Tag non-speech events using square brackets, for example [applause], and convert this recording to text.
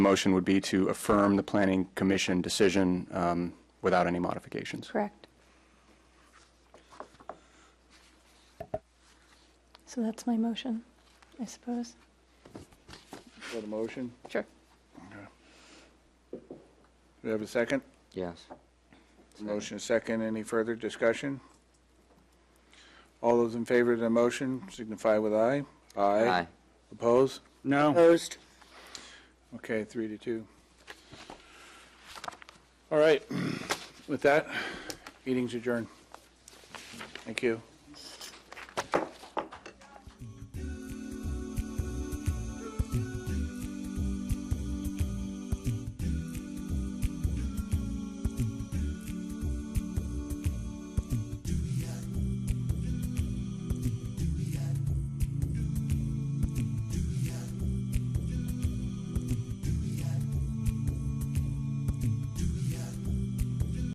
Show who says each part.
Speaker 1: Motion would be to affirm the Planning Commission decision um, without any modifications.
Speaker 2: Correct. So that's my motion, I suppose.
Speaker 3: Is that a motion?
Speaker 2: Sure.
Speaker 3: Do we have a second?
Speaker 4: Yes.
Speaker 3: Motion is second. Any further discussion? All those in favor of the motion signify with aye.
Speaker 4: Aye.
Speaker 3: Oppose?
Speaker 1: No.
Speaker 5: Opposed?
Speaker 3: Okay, three to two. [clears throat] All right. With that, meeting's adjourned. Thank you.